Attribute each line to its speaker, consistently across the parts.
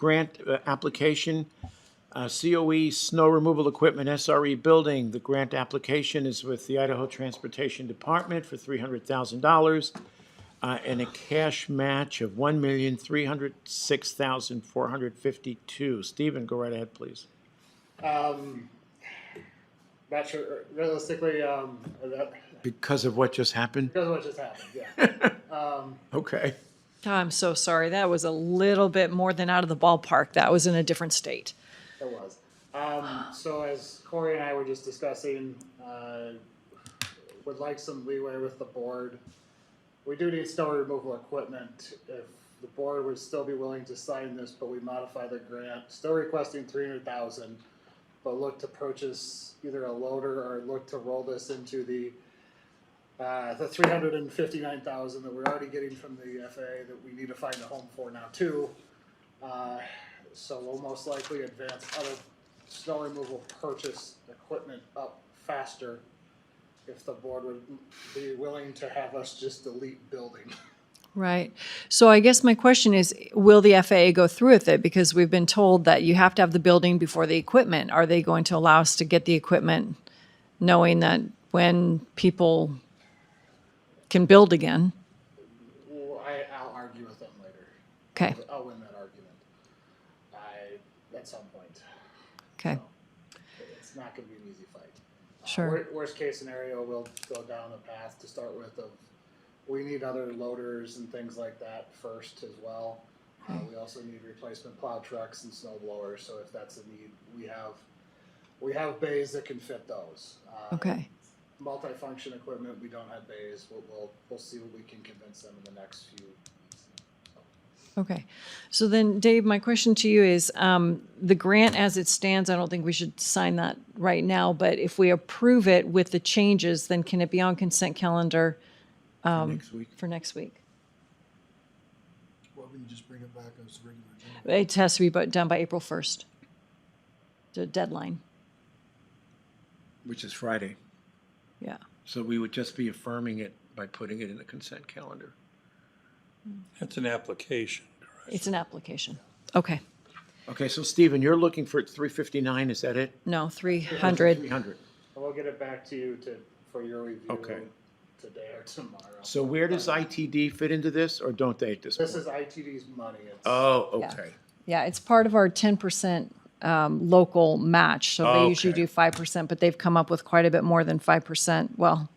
Speaker 1: grant uh, application, uh, COE Snow Removal Equipment SRE Building. The grant application is with the Idaho Transportation Department for $300,000 uh, and a cash match of $1,306,452. Stephen, go right ahead, please.
Speaker 2: Um, not sure, realistically, um, that,
Speaker 1: Because of what just happened?
Speaker 2: because of what just happened, yeah. Um,
Speaker 1: Okay.
Speaker 3: I'm so sorry. That was a little bit more than out of the ballpark. That was in a different state.
Speaker 2: it was. Um, so as Corey and I were just discussing, uh, would like some leeway with the board. We do need snow removal equipment. If the board would still be willing to sign this, but we modify the grant, still requesting three hundred thousand, but look to purchase either a loader or look to roll this into the uh, the three hundred and fifty-nine thousand that we're already getting from the FAA that we need to find a home for now too. Uh, So we'll most likely advance other snow removal purchase equipment up faster if the board would be willing to have us just delete building.
Speaker 3: Right. So I guess my question is, will the FAA go through with it? Because we've been told that you have to have the building before the equipment. Are they going to allow us to get the equipment knowing that when people can build again?
Speaker 2: Well, I, I'll argue with them later.
Speaker 3: Okay,
Speaker 2: I'll win that argument. I, at some point.
Speaker 3: okay,
Speaker 2: It's not gonna be an easy fight. Uh,
Speaker 3: Sure.
Speaker 2: wor- Worst case scenario, we'll go down the path to start with of, we need other loaders and things like that first as well. Uh, we also need replacement plow trucks and snow blowers, so if that's a need, we have, we have bays that can fit those. Uh,
Speaker 3: okay.
Speaker 2: Multi-function equipment, we don't have bays, we'll, we'll, we'll see what we can convince them in the next few.
Speaker 3: Okay. So then, Dave, my question to you is, um, the grant as it stands, I don't think we should sign that right now, but if we approve it with the changes, then can it be on consent calendar um,
Speaker 1: Next week.
Speaker 3: for next week?
Speaker 4: Well, we can just bring it back as regular. agenda.
Speaker 3: It has to be bu- done by April 1st, the deadline.
Speaker 1: Which is Friday.
Speaker 3: Yeah.
Speaker 1: So we would just be affirming it by putting it in the consent calendar.
Speaker 5: That's an application, correct?
Speaker 3: It's an application. Okay.
Speaker 1: Okay, so Stephen, you're looking for 359, is that it?
Speaker 3: No, 300.
Speaker 1: 300.
Speaker 2: And we'll get it back to you to, for your review.
Speaker 1: Okay.
Speaker 2: Today or tomorrow.
Speaker 1: So where does ITD fit into this, or don't they at this
Speaker 2: This
Speaker 1: point?
Speaker 2: is ITD's money, it's.
Speaker 1: Oh,
Speaker 3: Yeah.
Speaker 1: okay.
Speaker 3: Yeah, it's part of our 10% um, local match. So they usually
Speaker 1: Oh, Okay.
Speaker 3: do 5%, but they've come up with quite a bit more than 5%, well,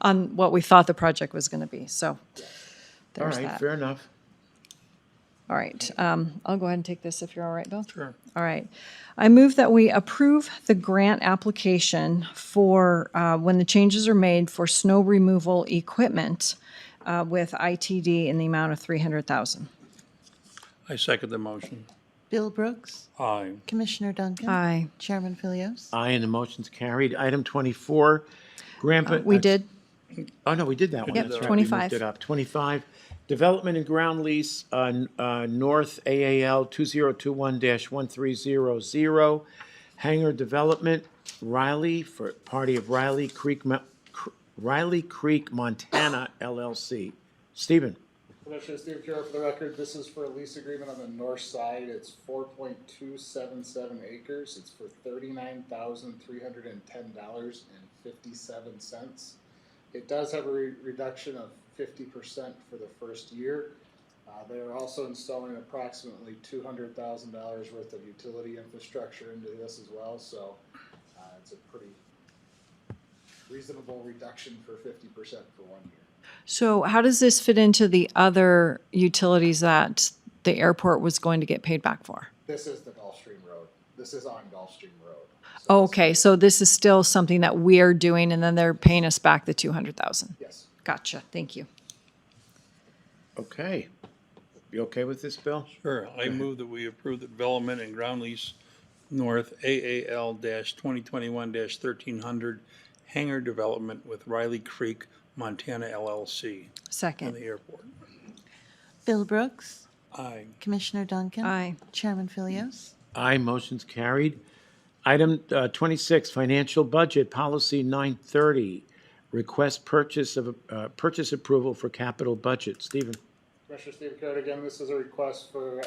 Speaker 3: on what we thought the project was going to be. So
Speaker 1: All
Speaker 3: there's
Speaker 1: right,
Speaker 3: that.
Speaker 1: fair enough.
Speaker 3: All right. um, I'll go ahead and take this if you're all right, Bill.
Speaker 5: Sure.
Speaker 3: All right. I move that we approve the grant application for, uh, when the changes are made for snow removal equipment uh, with ITD in the amount of 300,000.
Speaker 5: I second the motion.
Speaker 6: Bill Brooks,
Speaker 5: Aye.
Speaker 6: Commissioner Duncan.
Speaker 3: Aye.
Speaker 6: Chairman Philios.
Speaker 1: Aye, and the motion's carried. Item 24, grandpa.
Speaker 3: Uh, We did,
Speaker 1: Oh, no, we did that one.
Speaker 5: Yep,
Speaker 1: That's right, we
Speaker 3: 25.
Speaker 1: moved it up. 25, development and ground lease, uh, n- uh, North AAL 2021-1300, hangar development, Riley, for party of Riley Creek, Mo- Cr- Riley Creek, Montana LLC. Stephen?
Speaker 2: Commissioner Steve Kira, for the record, this is for a lease agreement on the north side. It's four point two seven seven acres. It's for thirty-nine thousand three hundred and ten dollars and fifty-seven cents. It does have a re- reduction of fifty percent for the first year. Uh, they are also installing approximately two hundred thousand dollars worth of utility infrastructure into this as well, so, uh, it's a pretty reasonable reduction for fifty percent for one year.
Speaker 3: so how does this fit into the other utilities that the airport was going to get paid back for?
Speaker 2: This is the Gulfstream Road. This is on Gulfstream Road. So
Speaker 3: Okay, so this is still something that we are doing, and then they're paying us back the 200,000.
Speaker 2: Yes.
Speaker 3: Gotcha, thank you.
Speaker 1: Okay. You okay with this, Bill?
Speaker 5: Sure. I move that we approve the development and ground lease north AAL twenty twenty-one thirteen hundred hangar development with Riley Creek, Montana LLC and the
Speaker 3: Second.
Speaker 5: airport.
Speaker 6: Bill Brooks,
Speaker 5: Aye.
Speaker 6: Commissioner Duncan.
Speaker 3: Aye.
Speaker 6: Chairman Philios.
Speaker 1: Aye, motion's carried. Item uh, 26, financial budget, policy 930, request purchase of, uh, purchase approval for capital budget. Stephen?
Speaker 2: Commissioner Steve Carrot again, this is a request for